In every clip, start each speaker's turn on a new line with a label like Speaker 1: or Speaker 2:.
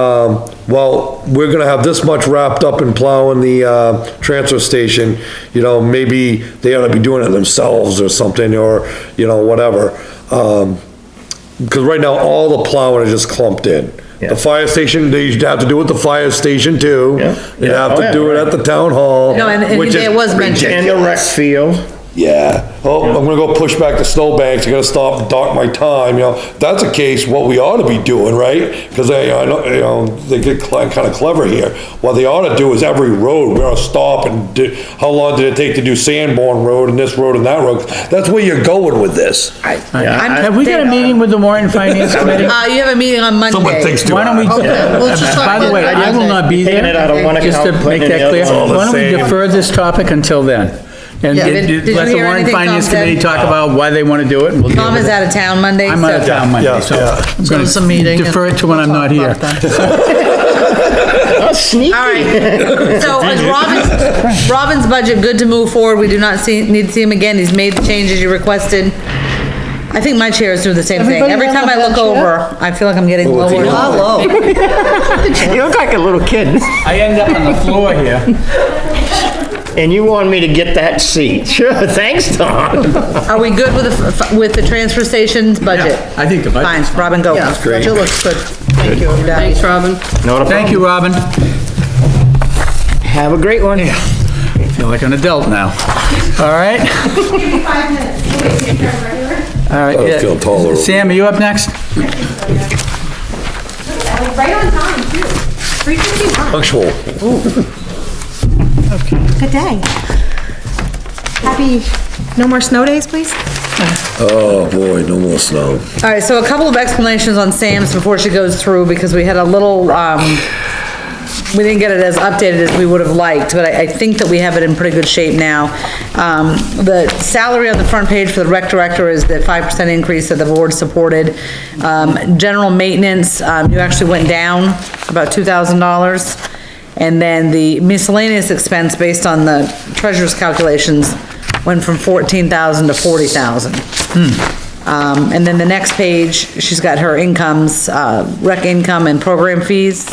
Speaker 1: um, well, we're gonna have this much wrapped up in plowing the, uh, transfer station, you know, maybe they ought to be doing it themselves or something, or, you know, whatever. Um 'cause because right now, all the plowing is just clumped in.
Speaker 2: Yeah.
Speaker 1: The fire station, they used to have to do it at the fire station too.
Speaker 2: Yeah.
Speaker 1: They have
Speaker 2: Yeah.
Speaker 1: to do it at the town hall.
Speaker 3: No, and- and
Speaker 1: which is
Speaker 3: it was mentioned.
Speaker 2: And the rec field.
Speaker 1: yeah, oh, I'm gonna go push back the snowbanks, I gotta stop and dock my time, you know, that's a case what we ought to be doing, right? Cause I, I know, you know, they get kinda clever here, what they ought to do is every road, we ought to stop and do, how long did it take to do Sanborn Road and this road and that road? That's where you're going with this.
Speaker 3: I- I'm-
Speaker 4: Have we got a meeting with the Warren Finance Committee?
Speaker 3: Uh, you have a meeting on Monday.
Speaker 1: Someone thinks too
Speaker 4: Why don't we,
Speaker 1: hard.
Speaker 3: Okay, we'll just
Speaker 4: by the way,
Speaker 3: try
Speaker 4: I will not be
Speaker 2: Taking
Speaker 4: there.
Speaker 2: it out of one
Speaker 4: Just to
Speaker 2: account,
Speaker 4: make
Speaker 2: putting it in
Speaker 4: that
Speaker 2: the
Speaker 4: clear,
Speaker 2: other one.
Speaker 1: all the
Speaker 4: why don't we
Speaker 1: same.
Speaker 4: defer this topic until then? And
Speaker 3: Yeah, did- did you
Speaker 4: let the
Speaker 3: hear
Speaker 4: Warren
Speaker 3: anything
Speaker 4: Finance
Speaker 3: Tom said?
Speaker 4: Committee talk about why they want to do it. and we'll deal
Speaker 3: Tom
Speaker 4: with
Speaker 3: is
Speaker 4: it.
Speaker 3: out of town Monday.
Speaker 4: I'm out of
Speaker 3: so-
Speaker 4: town Monday,
Speaker 1: Yeah,
Speaker 4: so
Speaker 1: yeah.
Speaker 4: I'm
Speaker 3: So it's a meeting
Speaker 4: gonna
Speaker 3: and
Speaker 4: defer it to when I'm
Speaker 3: we'll
Speaker 4: not
Speaker 3: talk
Speaker 4: here.
Speaker 3: about it then.
Speaker 2: Sneaky.
Speaker 3: All right, so is Robin's, Robin's budget good to move forward? We do not see, need to see him again. He's made the changes you requested. I think my chairs do the same thing.
Speaker 5: Everybody
Speaker 3: Every
Speaker 5: on
Speaker 3: time
Speaker 5: the
Speaker 3: I look
Speaker 5: bed chair?
Speaker 3: over, I feel like I'm getting
Speaker 1: Oh,
Speaker 3: lower.
Speaker 1: it's
Speaker 3: and
Speaker 1: yellow.
Speaker 3: lower.
Speaker 5: You look like a little kid.
Speaker 4: I end up on the floor here.
Speaker 2: And you want me to get that seat? Sure, thanks, Tom.
Speaker 3: Are we good with the, f- with the transfer station's budget?
Speaker 4: I think the budget's
Speaker 3: Fine, Robin, go.
Speaker 5: Yeah, budget looks good. Thank you. Thanks, Robin.
Speaker 2: Not a
Speaker 4: Thank you, Robin.
Speaker 2: Have a great one.
Speaker 4: I feel like an adult now. All right?
Speaker 6: five minutes. We'll get you covered, right?
Speaker 4: All right.
Speaker 1: I feel taller.
Speaker 4: Sam, are you up next?
Speaker 6: I was Right on time, too. Three fifty-one.
Speaker 1: Punctual.
Speaker 6: Good day. Happy, no more snow days, please?
Speaker 1: Oh, boy, no more snow.
Speaker 3: All right, so a couple of explanations on Sam's before she goes through, because we had a little, um, we didn't get it as updated as we would have liked, but I, I think that we have it in pretty good shape now. Um, the salary on the front page for the rec director is the five percent increase that the board supported. Um, general maintenance, um, you actually went down about two thousand dollars. And then the miscellaneous expense, based on the treasurer's calculations, went from fourteen thousand to forty thousand. Um, and then the next page, she's got her incomes, uh, rec income and program fees.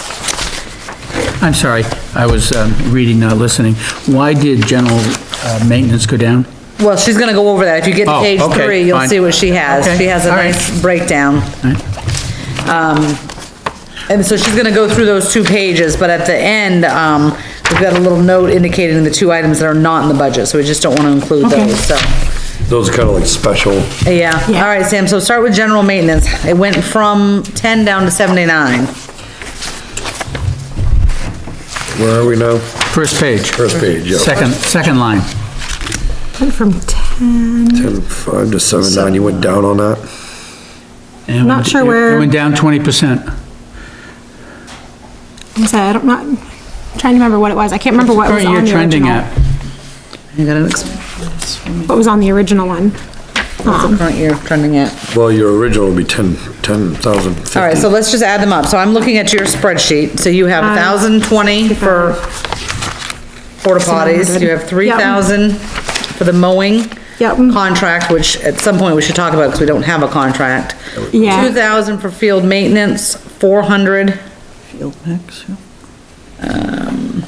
Speaker 4: I'm sorry, I was um, reading, not listening. Why did general uh, maintenance go down?
Speaker 3: Well, she's gonna go over that. If you get to
Speaker 4: Oh,
Speaker 3: page
Speaker 4: okay,
Speaker 3: three, you'll
Speaker 4: fine.
Speaker 3: see what she has.
Speaker 4: Okay,
Speaker 3: She has a
Speaker 4: all right.
Speaker 3: nice breakdown. Um,
Speaker 4: right.
Speaker 3: and so she's gonna go through those two pages, but at the end, um, we've got a little note indicating the two items that are not in the budget, so we just don't wanna include those, so.
Speaker 1: Those are kinda like special.
Speaker 3: Yeah, all right, Sam, so start with general maintenance. It went from ten down to seventy-nine.
Speaker 1: Where are we now?
Speaker 4: First page.
Speaker 1: First page, yeah.
Speaker 4: Second, second line.
Speaker 5: Went from 10,
Speaker 1: Ten, five to seven, nine, you went down on that?
Speaker 4: And it
Speaker 5: Not
Speaker 4: went-
Speaker 5: sure
Speaker 4: it- It
Speaker 5: where-
Speaker 4: went down 20%.
Speaker 5: I'm sorry, I don't, not, I'm trying to remember what it was. I can't remember what was
Speaker 4: Current
Speaker 5: on
Speaker 4: year
Speaker 5: the
Speaker 4: trending
Speaker 5: original.
Speaker 4: at,
Speaker 3: You got an ex-
Speaker 5: What was on the original one. Um,
Speaker 3: what's the current year trending at?
Speaker 1: Well, your original would be ten, ten thousand fifty.
Speaker 3: All right, so let's just add them up. So I'm looking at your spreadsheet. So you have
Speaker 5: Um,
Speaker 3: thousand twenty for porta potties, you have three
Speaker 5: Yep.
Speaker 3: thousand for the mowing.
Speaker 5: Yep.
Speaker 3: Contract, which at some point we should talk about because we don't have a contract.
Speaker 5: Yeah.
Speaker 3: Two thousand for field maintenance, four hundred, Um,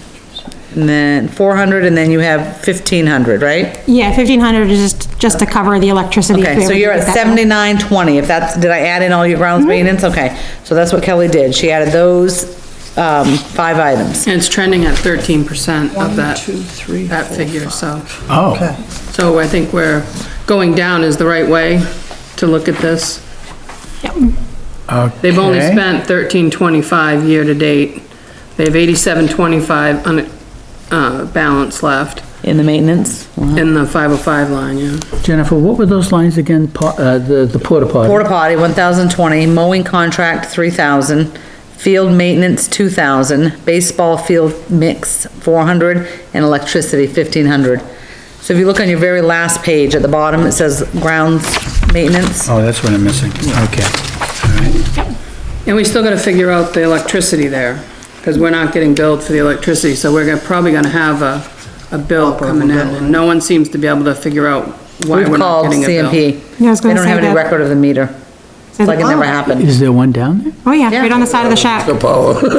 Speaker 3: and then four hundred, and then you have fifteen hundred, right?
Speaker 5: Yeah, 1500 is just, just to cover the electricity. if
Speaker 3: Okay,
Speaker 5: we
Speaker 3: so
Speaker 5: ever
Speaker 3: you're
Speaker 5: did
Speaker 3: at
Speaker 5: that. Mm-hmm.
Speaker 3: seventy-nine twenty, if that's, did I add in all your grounds maintenance? Okay, so that's what Kelly did. She added those, um, five items.
Speaker 7: And it's trending at thirteen percent of that, that figure, so.
Speaker 4: oh,
Speaker 7: So I think we're, going down is the right way to look at this.
Speaker 4: okay.
Speaker 7: They've only spent thirteen twenty-five year-to-date. They have eighty-seven twenty-five on, uh, balance left
Speaker 3: In the maintenance?
Speaker 7: in the five oh five line, yeah.
Speaker 4: Jennifer, what were those lines again, Po- uh, the, the porta potty?
Speaker 3: Porta potty, one thousand twenty, mowing contract, three thousand, field maintenance, two thousand, baseball field mix, four hundred, and electricity, fifteen hundred. So if you look on your very last page, at the bottom, it says grounds maintenance.
Speaker 4: Oh, that's what I'm missing, okay.
Speaker 7: And we still gotta figure out the electricity there, because we're not getting billed for the electricity, so we're gonna, probably gonna have a, a bill coming in, and no one seems to be able to figure out
Speaker 3: Oh,
Speaker 7: why
Speaker 3: We've
Speaker 7: we're not
Speaker 3: called
Speaker 7: getting a bill.
Speaker 3: CMP.
Speaker 5: Yeah, I was gonna
Speaker 3: They don't
Speaker 5: say
Speaker 3: have any
Speaker 5: that.
Speaker 3: record of the meter. It's like it never happened.
Speaker 4: Is there one down there?
Speaker 5: Oh, yeah, oh, right on the side of the shack.
Speaker 1: Power.